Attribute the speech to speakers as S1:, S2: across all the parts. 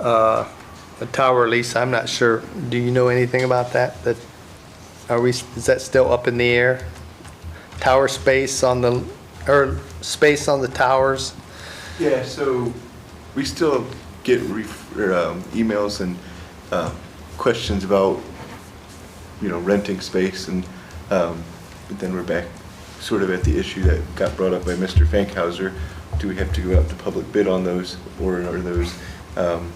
S1: uh, a tower lease, I'm not sure, do you know anything about that? That, are we, is that still up in the air? Tower space on the, or space on the towers?
S2: Yeah, so we still get ref- or, um, emails and um, questions about, you know, renting space and, um, but then we're back sort of at the issue that got brought up by Mr. Fankhauser. Do we have to go out to public bid on those or are those um,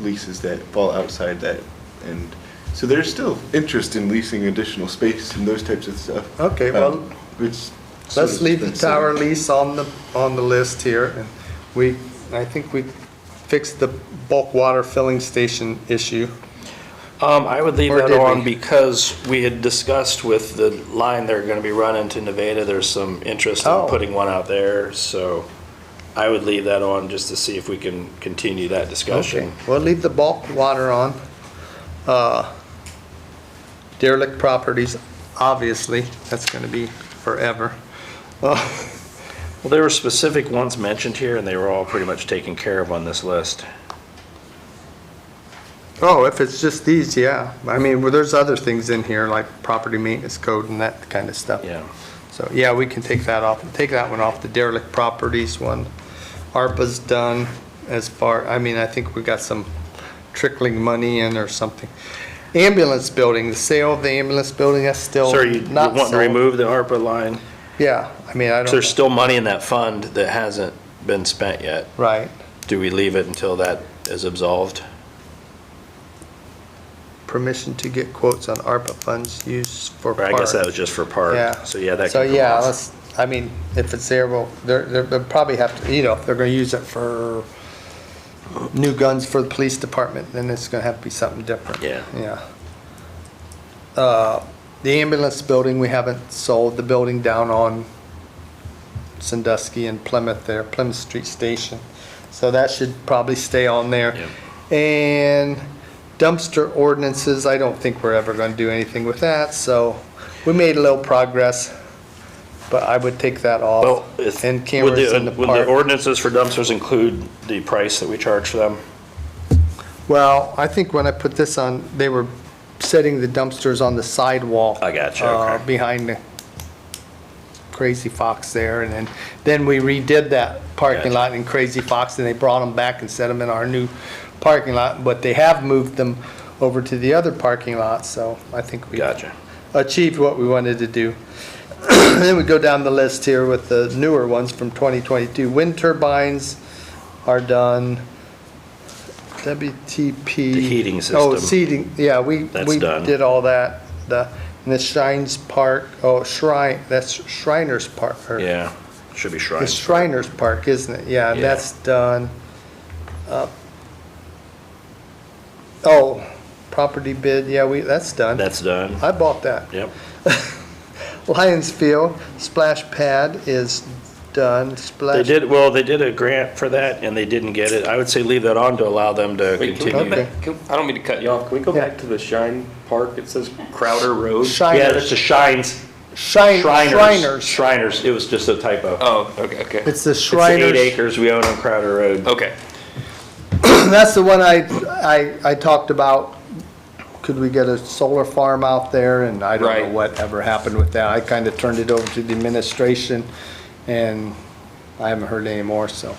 S2: leases that fall outside that? And so there's still interest in leasing additional space and those types of stuff.
S1: Okay, well,
S2: Um, it's sort
S1: Let's
S2: of
S1: leave the
S2: been sort of-
S1: tower lease on the, on the list here. and We, I think we fixed the bulk water filling station issue.
S3: Um, I would leave
S1: Or
S3: that
S1: did we?
S3: on because we had discussed with the line they're gonna be running to Nevada, there's some interest
S1: Oh.
S3: in putting one out there, so I would leave that on just to see if we can continue that
S1: Okay,
S3: discussion.
S1: well, leave the bulk water on. Uh, Derelict properties, obviously, that's going to be forever. Uh,
S3: Well, there were specific ones mentioned here, and they were all pretty much taken care of on this list.
S1: Oh, if it's just these, yeah. I mean, well, there's other things in here, like property maintenance code and that kind of stuff.
S3: Yeah.
S1: So, yeah, we can take that off, take that one off, the derelict properties one. ARPA's done as far, I mean, I think we got some trickling money in or something. Ambulance building, the sale of the ambulance building, that's still
S3: So are you you
S1: not
S3: wanting
S1: sold.
S3: to remove the ARPA line?
S1: Yeah, I mean, I
S3: 'Cause There's
S1: don't,
S3: still money in that fund that hasn't been spent yet.
S1: right,
S3: Do we leave it until that is absolved?
S1: permission to get quotes on ARPA funds used for
S3: Or I
S1: park.
S3: guess that was just for
S1: Yeah.
S3: park, so yeah, that
S1: So,
S3: can come
S1: yeah,
S3: off.
S1: let's, I mean, if it's there, well, they're, they're- they'll probably have to, you know, if they're gonna use it for new guns for the police department, then it's gonna have to be something different.
S3: Yeah.
S1: Yeah. Uh, the ambulance building, we haven't sold, the building down on Sandusky and Plymouth there, Plymouth Street Station. So that should probably stay on there. And dumpster ordinances, I don't think we're ever gonna do anything with that, so we made a little progress, but I would take that
S3: Well,
S1: off.
S3: if-
S1: And
S3: would
S1: cameras in the
S3: Would the
S1: park.
S3: ordinances for dumpsters include the price that we charge for them?
S1: Well, I think when I put this on, they were setting the dumpsters on the sidewalk.
S3: I gotcha,
S1: uh,
S3: okay.
S1: Behind the Crazy Fox there, and then, then we redid that parking
S3: Gotcha.
S1: lot in Crazy Fox, and they brought them back and set them in our new parking lot, but they have moved them over to the other parking lot, so I think we
S3: Gotcha.
S1: achieved what we wanted to do. Then we go down the list here with the newer ones from 2022. Wind turbines are done. WTP.
S3: The heating
S1: Oh,
S3: system.
S1: seating, yeah, we,
S3: That's
S1: we
S3: done.
S1: did all that. The, and the Shines Park, oh, Shrine, that's Shriners Park. or-
S3: Yeah, should be
S1: It's
S3: shrines.
S1: Shriners Park, isn't it? Yeah, and
S3: Yeah.
S1: that's done. Uh, Oh, property bid, yeah, we, that's done.
S3: That's done,
S1: I bought that.
S3: yep.
S1: Lions Field splash pad is done,
S3: They
S1: splash.
S3: did, well, they did a grant for that and they didn't get it. I would say leave that on to allow them to
S4: Wait, can we go
S3: continue.
S1: Okay.
S4: back? can- I don't mean to cut you off. Can we go
S1: Yeah.
S4: back to the Shine Park? It says Crowder Road.
S3: Yeah,
S1: Shriners,
S3: that's the shines,
S1: Shrin-
S3: Shriners.
S1: Shriners.
S3: Shriners, it was just a typo.
S4: Oh, okay, okay,
S1: It's the
S3: It's the eight
S1: Shriners. Oh.
S3: acres we own on Crowder Road.
S4: okay.
S1: That's the one I, I, I talked about. Could we get a solar farm out there? And I don't know
S4: Right.
S1: what ever happened with that. I kind of turned it over to the administration and I haven't heard any more, so.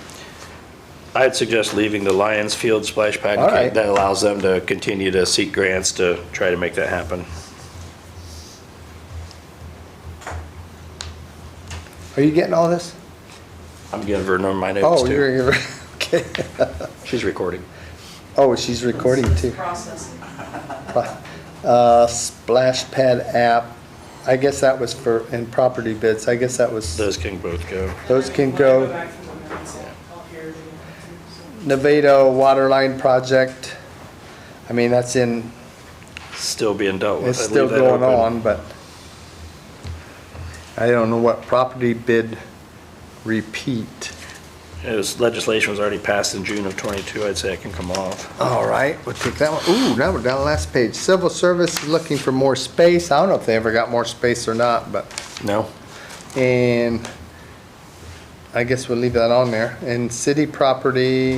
S3: I'd suggest leaving the Lions Field splash pad.
S1: All right.
S3: That allows them to continue to seek grants to try to make that happen.
S1: Are you getting all this?
S3: I'm giving her my notes
S1: Oh,
S3: too.
S1: you're, you're, okay.
S3: She's recording.
S1: Oh, she's recording too.
S5: Process.
S1: Uh, splash pad app, I guess that was for, in property bids, I guess that was,
S3: Those can both go.
S1: those can
S5: When I
S1: go.
S5: back from the minutes, I'll hear it again, so.
S1: Nevada water line project, I mean, that's in,
S3: Still being dealt with.
S1: it's
S3: I'd
S1: still
S3: leave that
S1: going
S3: open.
S1: on, but I don't know what property bid repeat.
S3: It was, legislation was already passed in June of '22, I'd say it can come off.
S1: All right, we'll take that one. Ooh, now we're down to the last page. Civil service is looking for more space. I don't know if they ever got more space or not, but
S3: No?
S1: And I guess we'll leave that on there. And city property,